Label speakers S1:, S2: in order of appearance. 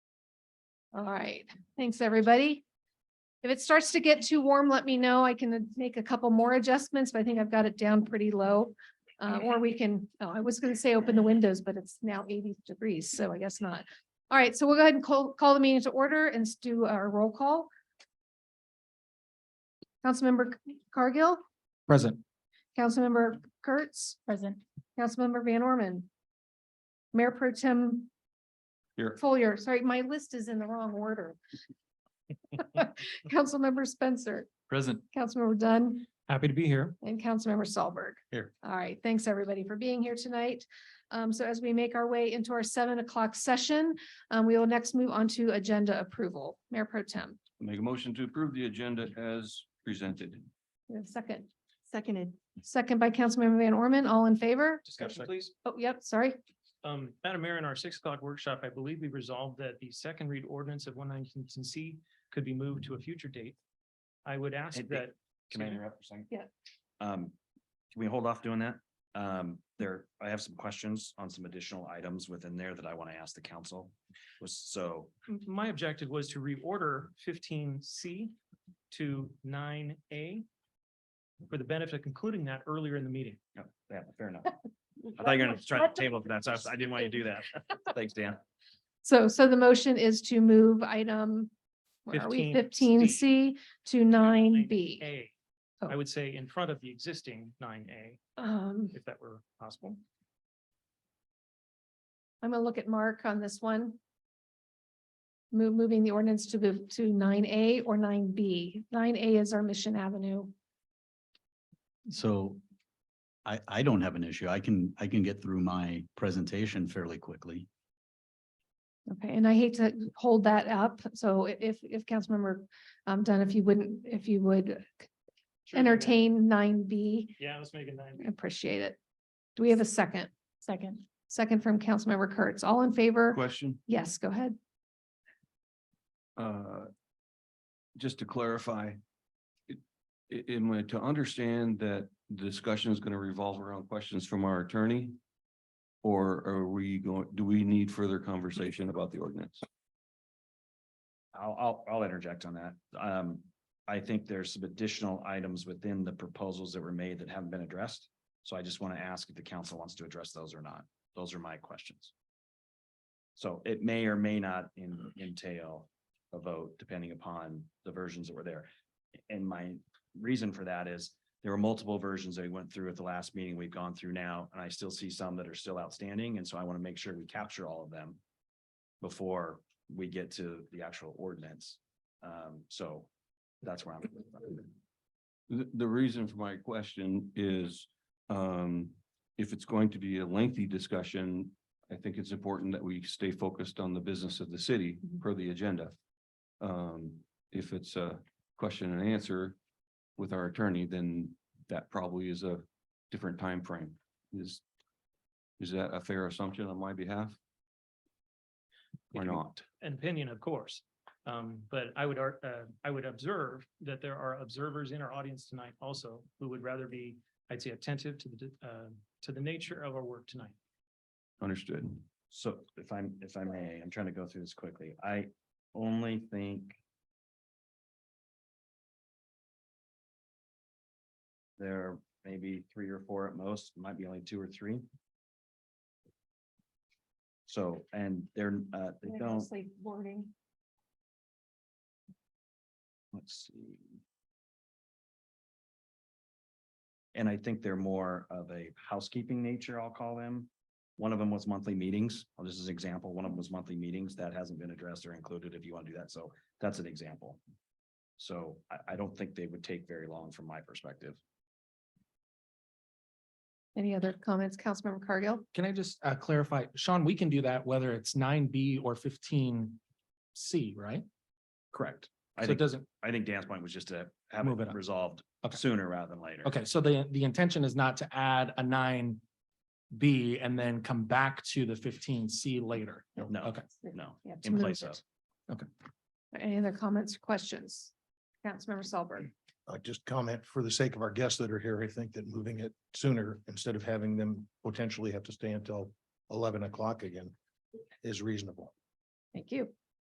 S1: All right, thanks, everybody. If it starts to get too warm, let me know. I can make a couple more adjustments, but I think I've got it down pretty low. Uh, or we can, oh, I was gonna say open the windows, but it's now eighty degrees, so I guess not. All right, so we'll go ahead and call, call the meeting to order and s- do our roll call. Councilmember Cargill,
S2: Present.
S1: Councilmember Kurtz,
S3: Present.
S1: Councilmember Van Orman. Mayor Pro Tem
S2: Here.
S1: Foyer, sorry, my list is in the wrong order. Councilmember Spencer,
S2: Present.
S1: Councilmember Dunn,
S2: Happy to be here.
S1: and Councilmember Solberg.
S2: Here.
S1: All right, thanks, everybody, for being here tonight. Um, so as we make our way into our seven o'clock session, um, we will next move on to agenda approval. Mayor Pro Tem,
S4: Make a motion to approve the agenda as presented.
S1: you have a second,
S3: Seconded.
S1: second by Councilmember Van Orman, all in favor?
S5: Discussion, please.
S1: Oh, yep, sorry.
S5: Um, Madam Mayor, in our six o'clock workshop, I believe we resolved that the second read ordinance of one nineteen C could be moved to a future date. I would ask
S6: Hey, hey,
S5: that.
S6: Can I
S5: Excuse me?
S6: interrupt for a second?
S1: Yeah.
S6: Um, can we hold off doing that? Um, there, I have some questions on some additional items within there that I want to ask the council. Was so,
S5: M- My objective was to reorder fifteen C to nine A for the benefit of concluding that earlier in the meeting.
S6: yeah, yeah, fair enough. I thought you were gonna try to table for that, so I- I didn't want you to do that. Thanks, Dan.
S1: So, so the motion is to move item, where are we, fifteen
S5: 15C.
S1: C to nine B.
S5: A,
S1: Oh.
S5: I would say in front of the existing nine A,
S1: Um,
S5: if that were possible.
S1: I'm gonna look at Mark on this one. Move, moving the ordinance to the, to nine A or nine B. Nine A is our Mission Avenue.
S7: So I, I don't have an issue. I can, I can get through my presentation fairly quickly.
S1: Okay, and I hate to hold that up, so i- if, if Councilmember um, Dunn, if you wouldn't, if you would entertain nine B,
S5: Yeah, let's make it nine.
S1: I appreciate it. Do we have a second?
S3: Second.
S1: Second from Councilmember Kurtz. All in favor?
S4: Question,
S1: Yes, go ahead.
S4: uh, just to clarify. i- i- Am I to understand that the discussion is going to revolve around questions from our attorney? Or are we going, do we need further conversation about the ordinance?
S6: I'll, I'll, I'll interject on that. Um, I think there's some additional items within the proposals that were made that haven't been addressed. So I just want to ask if the council wants to address those or not. Those are my questions. So it may or may not en- entail a vote depending upon the versions that were there. And my reason for that is there were multiple versions that we went through at the last meeting we've gone through now, and I still see some that are still outstanding. And so I want to make sure we capture all of them before we get to the actual ordinance. Um, so that's where I'm.
S4: The, the reason for my question is, um, if it's going to be a lengthy discussion, I think it's important that we stay focused on the business of the city per the agenda. Um, if it's a question and answer with our attorney, then that probably is a different time frame. Is, is that a fair assumption on my behalf? Or not?
S5: an opinion, of course. Um, but I would, ar- uh, I would observe that there are observers in our audience tonight also who would rather be, I'd say attentive to the, d- uh, to the nature of our work tonight.
S4: Understood.
S6: So if I'm, if I may, I'm trying to go through this quickly. I only think. There are maybe three or four at most, might be only two or three. So, and they're, uh, they don't,
S1: boarding.
S6: let's see. And I think they're more of a housekeeping nature, I'll call them. One of them was monthly meetings. I'll just as an example, one of them was monthly meetings that hasn't been addressed or included if you want to do that. So that's an example. So I, I don't think they would take very long from my perspective.
S1: Any other comments, Councilmember Cargill?
S8: Can I just uh, clarify, Sean, we can do that whether it's nine B or fifteen C, right?
S6: Correct. I
S8: So it
S6: think,
S8: doesn't,
S6: I think Dan's point was just to have
S8: Move it
S6: it
S8: up.
S6: resolved
S8: Okay.
S6: sooner rather than later.
S8: okay, so the, the intention is not to add a nine B and then come back to the fifteen C later.
S6: No.
S8: Okay.
S6: No,
S1: Yeah, to
S6: in
S1: move
S6: place
S1: it.
S6: of.
S1: Any other comments or questions? Councilmember Solberg.
S6: Mm.
S9: I uh, just comment for the sake of our guests that are here, I think that moving it sooner instead of having them potentially have to stay until eleven o'clock again is reasonable.
S1: Thank you.